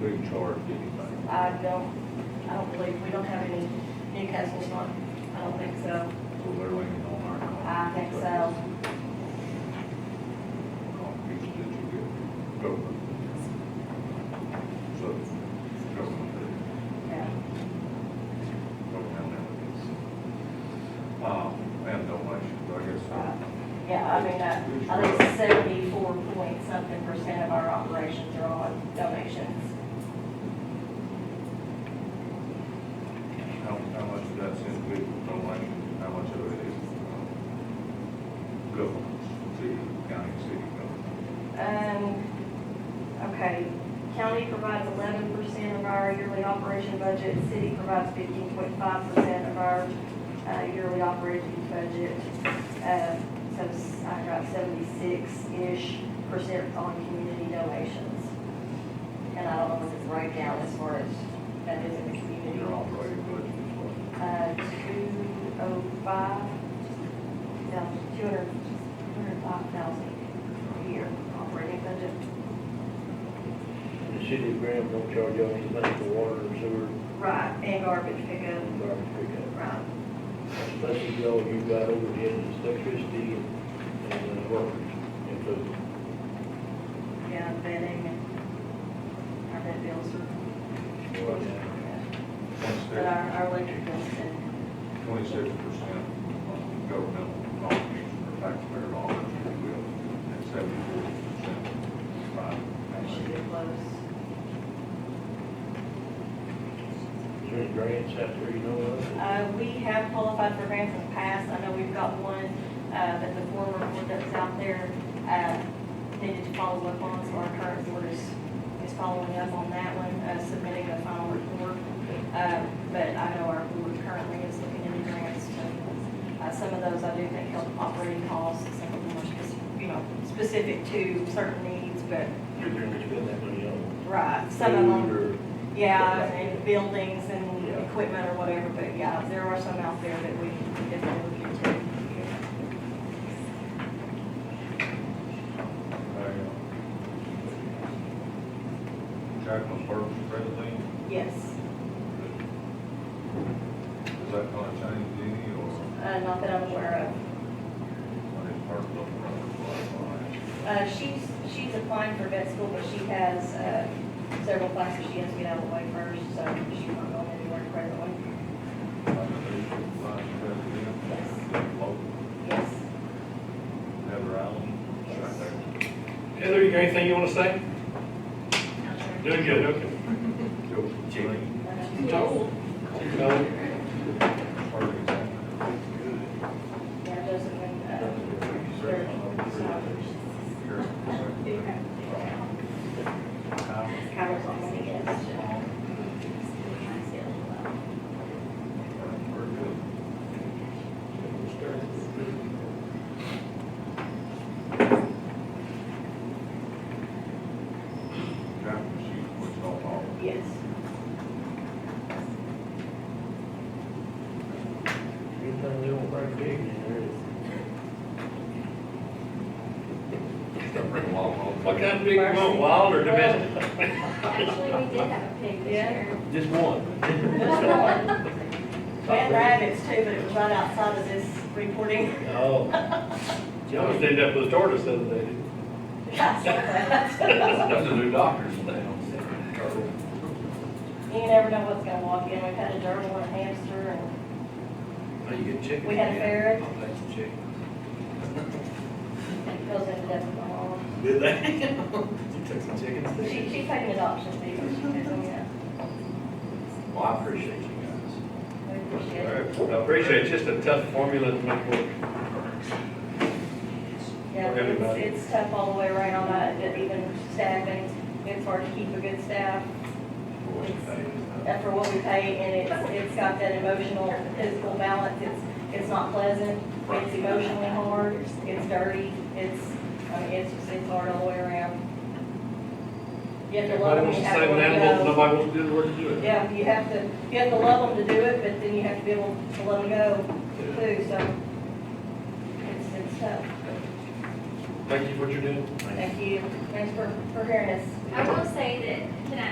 we charge anybody. I don't, I don't believe, we don't have any Newcastle's one, I don't think so. So they're leaning on our. I think so. Contributions that you get, government. So, government, Yeah. government entities. Um, and donations, I guess. Uh, Yeah, I mean, uh, I think seventy-four point something percent of our operations are on donations. How, how much of that's individual donation, how much of it is, um, government, city, county, city government? Um, okay, county provides eleven percent of our yearly operation budget, city provides fifteen point five percent of our, uh, yearly operating budget. Uh, so s- I got seventy-six-ish percent on community donations. And I don't know what the breakdown as far as that is in the community. Your operating budget is what? Uh, 205, no, 200 205,000 a year operating budget. The city of Graham don't charge y'all any money for water and sewer, Right, and uh, garbage pickup. and garbage pickup. Right. Plus you all you got overhead is electricity and, and uh, workers included. Yeah, bedding and our bed bills. But Twenty-six, our, our electric bills and, twenty-six percent governmental contribution for taxpayer dollars, if you will, and seventy-four percent that should private. be close. Is there any grants out there you know of? Uh, we have qualified for grants in the past. I know we've got one, uh, that the former board that's out there, uh, needed to follow up on, so our current board is, is following up on that one, uh, submitting a final report. Uh, but I know our board currently is looking into grants to, uh, some of those I do think help operating costs, some of them are spec- you know, specific to certain needs, but, You're gonna spend that money on. right, some of them. food or- Yeah, and buildings and Yeah. equipment or whatever, but yeah, there are some out there that we can definitely look into. Jacqueline Burks, president, Yes, is that gonna change any, or uh, not that I'm aware when it's part of the of. Uh, she's, she's applying for vet school, but she has, uh, several classes she has to get out of the way first, so she's not going anywhere presently. vice president? Yes. Local, Yes. Heather Allen, right there. Heather, you got anything you wanna say? Doing good, okay. Joseph Green, Joel? No. Ferguson, Yeah, Joseph and, uh, they're, so, Kirk, secretary. Howard. Kyler's on the yes. Yes. Anything they don't bring big in there is. What kind of big you want, wild or domestic? Actually, we did have a pig this Yeah. year. Just one. We had rabbits too, but it was right outside of this reporting. Oh. You almost end up with a tortoise the other day. You Those are new doctors now. never know what's gonna walk in. We've had a gerbil and a hamster and, Now Oh, you get chickens. We had a yeah. ferret. I'll take some chicken. and goes into death with the law. Did they? You took some chickens there? She, she paid an adoption fee, but she did, yeah. Well, I appreciate you guys. We appreciate it. I appreciate it's just a tough formula to make work. Yeah, Everybody. it's, it's tough all the way around, uh, that even staffing, it's hard to keep a good staff. after what we pay, and it's, it's got that emotional, physical balance, it's, it's not pleasant, it's emotionally hard, it's dirty, it's, I mean, it's, just- it's hard all the way around. You have to love Nobody them, wants you to have to save an let animal, them go. nobody wants to do the work to do it. Yeah, you have to, you have to love them to do it, but then you have to be able to let them go too, so it's, it's tough. Thank you for what you're doing. Thank you, thanks for, for hearing us. I will say that, can I